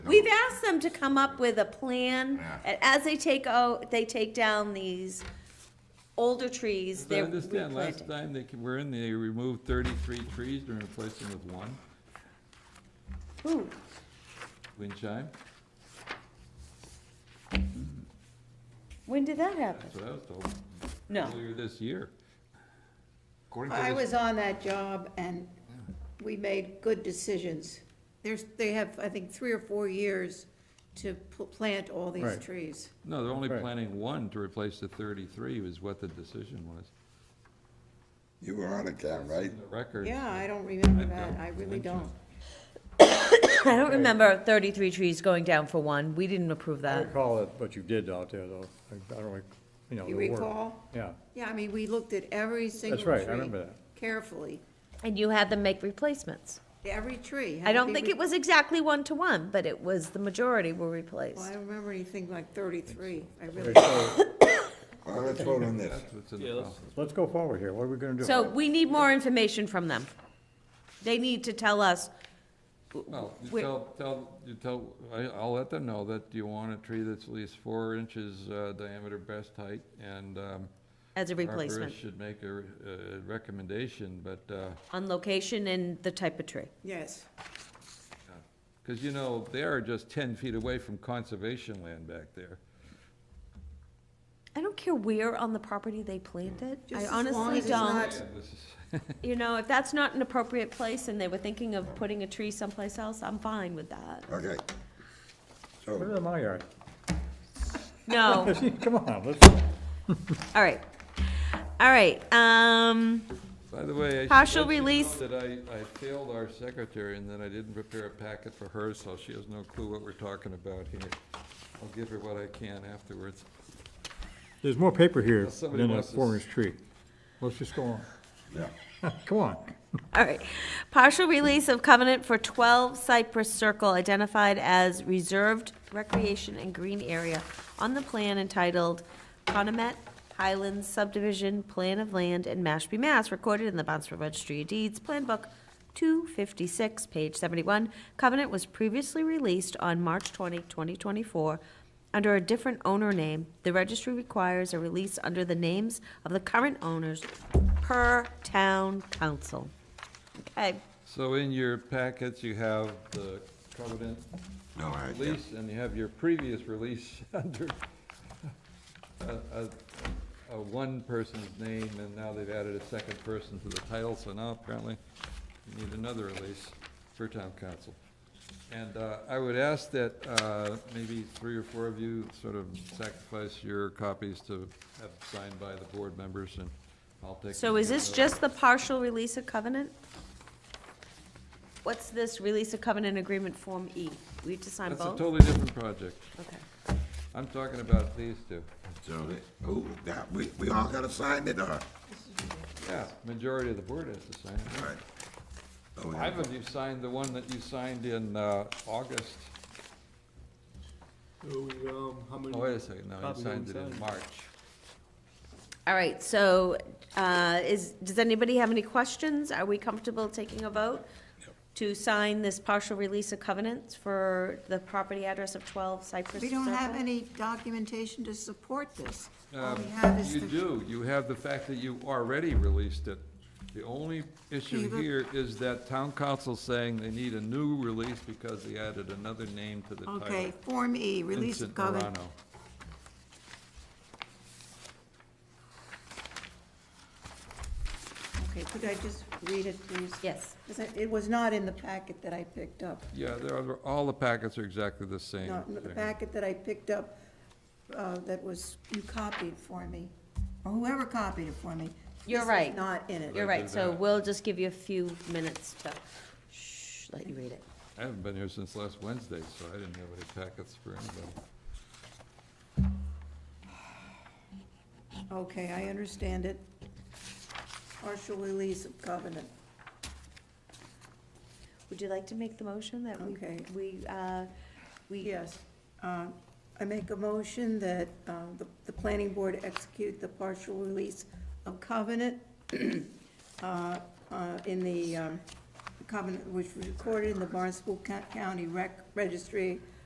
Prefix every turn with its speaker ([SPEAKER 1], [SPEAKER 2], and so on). [SPEAKER 1] ask them to come up with a plan,
[SPEAKER 2] Yeah.
[SPEAKER 1] and as they take out, they take down these older trees,
[SPEAKER 3] I
[SPEAKER 1] they're
[SPEAKER 3] understand, last
[SPEAKER 1] replanting.
[SPEAKER 3] time they ca- were in, they removed thirty-three trees and replaced them with one,
[SPEAKER 1] Ooh,
[SPEAKER 3] wind chime,
[SPEAKER 1] when did that happen?
[SPEAKER 3] that's what I was told.
[SPEAKER 1] No.
[SPEAKER 3] Earlier this year.
[SPEAKER 2] According
[SPEAKER 4] I
[SPEAKER 2] to this,
[SPEAKER 4] was on that job and we made good decisions. There's, they have, I think, three or four years to pl- plant all these
[SPEAKER 5] Right.
[SPEAKER 4] trees.
[SPEAKER 3] No, they're only
[SPEAKER 5] Right.
[SPEAKER 3] planning one to replace the thirty-three was what the decision was.
[SPEAKER 6] You were on it, Ken, right?
[SPEAKER 3] In the Record.
[SPEAKER 4] Yeah, I don't remember
[SPEAKER 3] I've
[SPEAKER 4] that,
[SPEAKER 3] got
[SPEAKER 4] I really
[SPEAKER 3] winches.
[SPEAKER 4] don't.
[SPEAKER 7] I don't remember thirty-three trees going down for one. We didn't approve
[SPEAKER 5] I
[SPEAKER 7] that.
[SPEAKER 5] recall it, what you did out there, though. I I don't, rec- you know, the
[SPEAKER 4] You
[SPEAKER 5] work.
[SPEAKER 4] recall?
[SPEAKER 5] Yeah,
[SPEAKER 4] Yeah, I mean, we looked at every single tree.
[SPEAKER 5] right, I remember that.
[SPEAKER 4] Carefully,
[SPEAKER 7] And you had them make replacements.
[SPEAKER 4] every tree. had
[SPEAKER 7] I
[SPEAKER 4] to
[SPEAKER 7] don't
[SPEAKER 4] be
[SPEAKER 7] think
[SPEAKER 4] re-
[SPEAKER 7] it was exactly one-to-one, but it was, the majority were
[SPEAKER 4] Well, I
[SPEAKER 7] replaced.
[SPEAKER 4] don't remember anything like thirty-three, I really,
[SPEAKER 5] Okay, so
[SPEAKER 6] All right, let's vote on this.
[SPEAKER 3] That's what's in the policy.
[SPEAKER 5] let's go forward here. What are we gonna do?
[SPEAKER 1] So we need more information from them. They need to tell us,
[SPEAKER 3] Well, you
[SPEAKER 1] Wait.
[SPEAKER 3] tell, tell, you tell, I, I'll let them know that you want a tree that's at least four inches uh, diameter best height, and, um,
[SPEAKER 1] as a
[SPEAKER 3] the
[SPEAKER 1] replacement,
[SPEAKER 3] arborist should make a, re- a recommendation, but, uh,
[SPEAKER 1] on location and the type of tree.
[SPEAKER 4] yes.
[SPEAKER 3] Because, you know, they are just 10 feet away from conservation land back there.
[SPEAKER 1] I don't care where on the property they plant it,
[SPEAKER 4] Just
[SPEAKER 1] I
[SPEAKER 4] as long as
[SPEAKER 1] honestly
[SPEAKER 4] it's
[SPEAKER 1] don't.
[SPEAKER 4] not-
[SPEAKER 3] This is-
[SPEAKER 1] You know, if that's not an appropriate place and they were thinking of putting a tree someplace else, I'm fine with that.
[SPEAKER 6] Okay.
[SPEAKER 5] Put it
[SPEAKER 6] So,
[SPEAKER 5] in my yard.
[SPEAKER 1] No,
[SPEAKER 5] Come on, let's,
[SPEAKER 1] all right. All right, um,
[SPEAKER 3] By the way, I should
[SPEAKER 1] Partial
[SPEAKER 3] let you know
[SPEAKER 1] release.
[SPEAKER 3] That I, I failed our secretary and that I didn't prepare a packet for her, so she has no clue what we're talking about here. I'll give her what I can afterwards.
[SPEAKER 5] there's more paper here
[SPEAKER 3] Well, somebody
[SPEAKER 5] than a
[SPEAKER 3] wants to s-
[SPEAKER 5] forest tree. Let's just go
[SPEAKER 6] yeah,
[SPEAKER 5] on. Come on.
[SPEAKER 1] all right. Partial release of covenant for twelve Cypress Circle identified as reserved recreation and green area on the plan entitled Conomet Highlands Subdivision Plan of Land in Mashpee, Mass, recorded in the Bonsford Registry of Deeds, Plan Book two fifty-six, page seventy-one. Covenant was previously released on March 20, 2024. under a different owner name, the registry requires a release under the names of the current owners per town council. Okay,
[SPEAKER 3] So in your packets, you have the covenant
[SPEAKER 6] all right, yeah.
[SPEAKER 3] release, and you have your previous release under a, a, a one person's name, and now they've added a second person to the title, so now apparently you need another release for town council. And, uh, I would ask that, uh, maybe three or four of you sort of sacrifice your copies to have signed by the board members, and I'll take.
[SPEAKER 1] so
[SPEAKER 3] them
[SPEAKER 1] is
[SPEAKER 3] here.
[SPEAKER 1] this just the partial release of covenant? What's this release of covenant agreement Form E? We have to sign
[SPEAKER 3] That's a
[SPEAKER 1] both?
[SPEAKER 3] totally different project.
[SPEAKER 1] Okay.
[SPEAKER 3] I'm talking about these two.
[SPEAKER 6] So, who, that, we, we all gotta sign it, or?
[SPEAKER 3] Yeah, majority of the board has to sign it. yeah.
[SPEAKER 6] All right. Oh, we
[SPEAKER 3] I
[SPEAKER 6] have-
[SPEAKER 3] believe you signed the one that you signed in uh, August.
[SPEAKER 8] So, um, how many?
[SPEAKER 3] Oh, wait a second, no, you
[SPEAKER 8] Copy
[SPEAKER 3] signed it
[SPEAKER 8] and
[SPEAKER 3] in
[SPEAKER 8] sign.
[SPEAKER 3] March.
[SPEAKER 1] All right, so, uh, is, does anybody have any questions? Are we comfortable taking a vote to sign this partial release of covenants for the property address of twelve Cypress
[SPEAKER 4] We don't have
[SPEAKER 1] Circle?
[SPEAKER 4] any documentation to support this. All we
[SPEAKER 3] Um,
[SPEAKER 4] have is
[SPEAKER 3] You
[SPEAKER 4] the-
[SPEAKER 3] do, you have the fact that you already released it. The only issue
[SPEAKER 4] Eva?
[SPEAKER 3] here is that town council saying they need a new release because they added another name to the title.
[SPEAKER 4] Okay, Form E, release of
[SPEAKER 3] Vincent
[SPEAKER 4] covenant.
[SPEAKER 3] Morano.
[SPEAKER 4] Okay, could I just read it, please?
[SPEAKER 1] Yes.
[SPEAKER 4] 'Cause I- It was not in the packet that I picked up.
[SPEAKER 3] Yeah, there are, all the packets are exactly the same.
[SPEAKER 4] No, in the
[SPEAKER 3] thing.
[SPEAKER 4] packet that I picked up, uh, that was, you copied for me, or whoever copied it for me.
[SPEAKER 1] You're
[SPEAKER 4] this is
[SPEAKER 1] right.
[SPEAKER 4] not in it.
[SPEAKER 1] You're
[SPEAKER 3] They
[SPEAKER 1] right,
[SPEAKER 3] did
[SPEAKER 1] so
[SPEAKER 3] that.
[SPEAKER 1] we'll just give you a few minutes to, shh, let you read it.
[SPEAKER 3] I haven't been here since last Wednesday, so I didn't have any packets for anybody.
[SPEAKER 4] Okay, I understand it. Partial release of covenant.
[SPEAKER 1] Would you like to make the motion that we,
[SPEAKER 4] Okay.
[SPEAKER 1] we, uh, we,
[SPEAKER 4] Yes. Uh, I make a motion that uh, the, the planning board execute the partial release of covenant uh, uh, in the um, covenant, which was recorded in the Barnstable Co- County Rec, Registry